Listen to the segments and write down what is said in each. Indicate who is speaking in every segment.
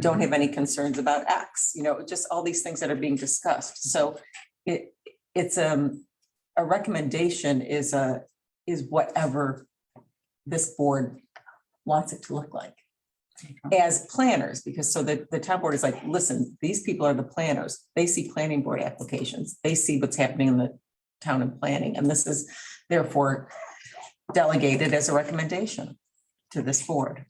Speaker 1: don't have any concerns about X, you know, just all these things that are being discussed. So it, it's, um, a recommendation is a, is whatever this board wants it to look like as planners, because so that the town board is like, listen, these people are the planners. They see planning board applications. They see what's happening in the town and planning, and this is therefore delegated as a recommendation to this board.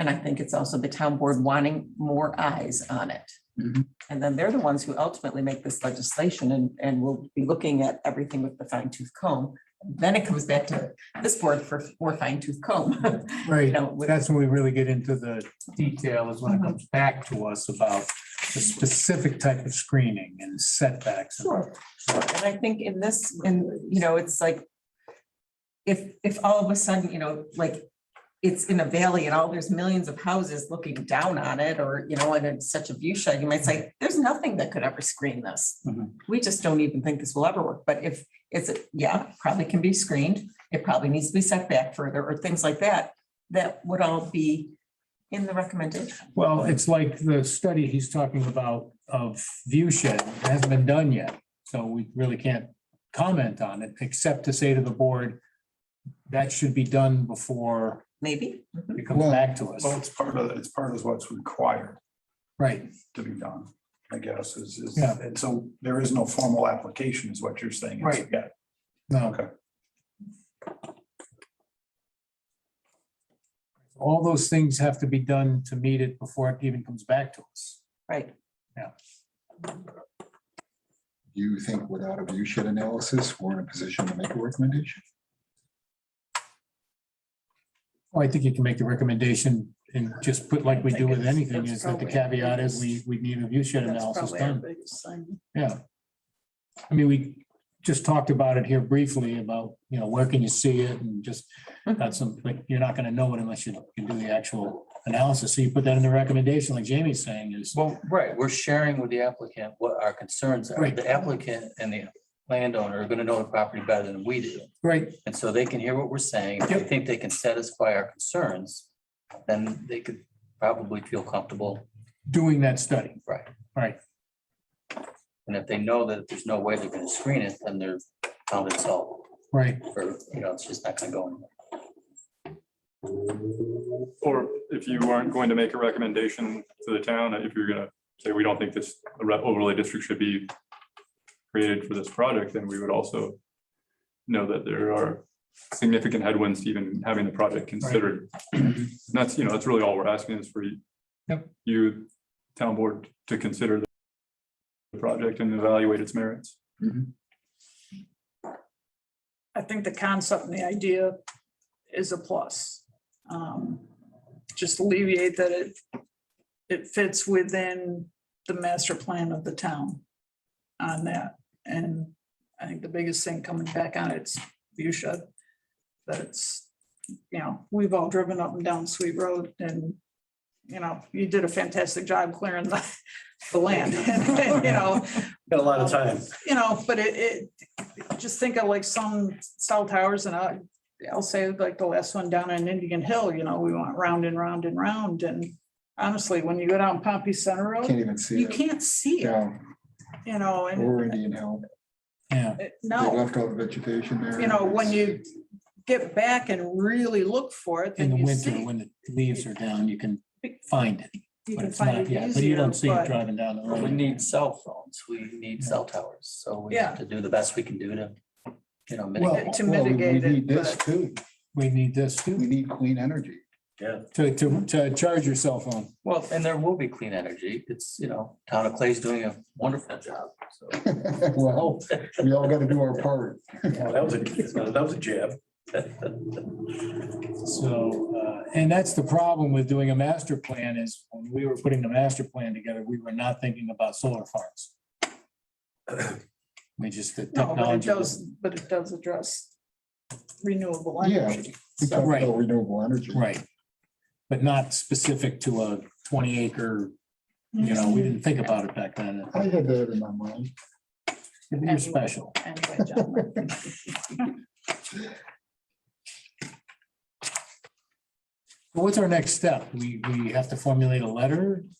Speaker 1: And I think it's also the town board wanting more eyes on it.
Speaker 2: Mhm.
Speaker 1: And then they're the ones who ultimately make this legislation and, and will be looking at everything with the fine tooth comb. Then it comes back to this board for, for fine tooth comb, you
Speaker 3: Right,
Speaker 1: know, with-
Speaker 3: that's when we really get into the detail is when it comes back to us about the specific type of screening and setbacks.
Speaker 1: Sure, sure. And I think in this, in, you know, it's like, if, if all of a sudden, you know, like, it's in a valley and all, there's millions of houses looking down on it, or, you know, and it's such a view shed, you might say, there's nothing that could ever screen this.
Speaker 3: Mhm.
Speaker 1: We just don't even think this will ever work. But if it's, yeah, probably can be screened, it probably needs to be set back further, or things like that, that would all be in the recommendation.
Speaker 3: Well, it's like the study he's talking about of view shed, it hasn't been done yet, so we really can't comment on it, except to say to the board, that should be done before
Speaker 1: Maybe? Mhm.
Speaker 3: it comes back to us,
Speaker 4: Well, it's part of, it's part of what's required
Speaker 3: right?
Speaker 4: to be done, I guess, is, is,
Speaker 3: Yeah.
Speaker 4: and so there is no formal application is what you're saying. It's-
Speaker 3: Right.
Speaker 4: Yeah,
Speaker 3: No.
Speaker 4: Okay.
Speaker 3: All those things have to be done to meet it before it even comes back to us.
Speaker 1: Right.
Speaker 5: Do you think without a view shed analysis, we're in a position to make a recommendation?
Speaker 3: Well, I think you can make the recommendation and just put like we do with anything, is that the caveat is we, we need a view shed analysis done. Yeah. I mean, we just talked about it here briefly about, you know, where can you see it and just got some, like, you're not gonna know it unless you can do the actual analysis. So you put that in the recommendation, like Jamie's saying is,
Speaker 2: Well, right, we're sharing with the applicant what our concerns are.
Speaker 3: Right.
Speaker 2: The applicant and the landowner are gonna know the property better than we do.
Speaker 3: right,
Speaker 2: And so they can hear what we're saying. If they think they can satisfy our concerns, then they could probably feel comfortable.
Speaker 3: doing that study.
Speaker 2: And if they know that there's no way they're gonna screen it, then they're found it solved.
Speaker 3: Right,
Speaker 2: Or, you know, it's just not gonna go anywhere.
Speaker 6: Or if you aren't going to make a recommendation to the town, if you're gonna say, we don't think this overlay district should be created for this project, then we would also know that there are significant headwinds to even having the project considered. And that's, you know, that's really all we're asking is for you,
Speaker 3: Yep.
Speaker 6: you, town board, to consider the project and evaluate its merits.
Speaker 7: I think the concept and the idea is a plus. Um, Just alleviate that it, it fits within the master plan of the town on that. And I think the biggest thing coming back on it's view shed. That it's, you know, we've all driven up and down Sweet Road and, you know, you did a fantastic job clearing the, the land, you know.
Speaker 8: Got a lot of time.
Speaker 7: you know, but it, it, just think of like some cell towers and I, I'll say like the last one down in Indian Hill, you know, we went round and round and round and honestly, when you go down Pompey Center Road,
Speaker 5: Can't even see
Speaker 7: you
Speaker 5: it.
Speaker 7: can't see it,
Speaker 5: Yeah,
Speaker 7: you know, and
Speaker 5: or Indian Hill.
Speaker 3: yeah,
Speaker 7: it-
Speaker 5: They
Speaker 7: no,
Speaker 5: left all the vegetation there.
Speaker 7: you know, when you get back and really look for it,
Speaker 3: in
Speaker 7: then
Speaker 3: the
Speaker 7: you
Speaker 3: winter,
Speaker 7: see.
Speaker 3: when the leaves are down, you can find it,
Speaker 7: You
Speaker 3: but
Speaker 7: can
Speaker 3: it's
Speaker 7: find
Speaker 3: not,
Speaker 7: it
Speaker 3: yeah, but you
Speaker 7: easier,
Speaker 3: don't see it
Speaker 7: but
Speaker 3: driving down the
Speaker 2: But
Speaker 3: road.
Speaker 2: We need cell phones. We need cell towers. So we have to do the best we can do to, you know,
Speaker 3: Well,
Speaker 2: mitigate.
Speaker 7: to
Speaker 5: Well, we-
Speaker 7: mitigate
Speaker 5: We need
Speaker 7: it,
Speaker 5: this
Speaker 7: but
Speaker 5: too.
Speaker 3: We need this
Speaker 5: We
Speaker 3: too,
Speaker 5: need clean energy.
Speaker 3: to, to, to charge your cell phone.
Speaker 2: Well, and there will be clean energy. It's, you know, town of Clay's doing a wonderful job, so.
Speaker 5: Well, we all got to do our part.
Speaker 8: Well, That was a, that was a jab.
Speaker 3: So, uh, and that's the problem with doing a master plan is when we were putting the master plan together, we were not thinking about solar farms. We just, the
Speaker 7: no, but it
Speaker 3: technology.
Speaker 7: does,
Speaker 3: wasn't-
Speaker 7: but it does address renewable
Speaker 5: Yeah.
Speaker 7: energy.
Speaker 5: We talked
Speaker 3: Right.
Speaker 5: about renewable energy.
Speaker 3: Right. But not specific to a twenty acre, you know, we didn't think about it back then.
Speaker 5: I had that in my mind.
Speaker 3: You're special.
Speaker 7: Anyway, John,
Speaker 3: What's our next step? We, we have to formulate a letter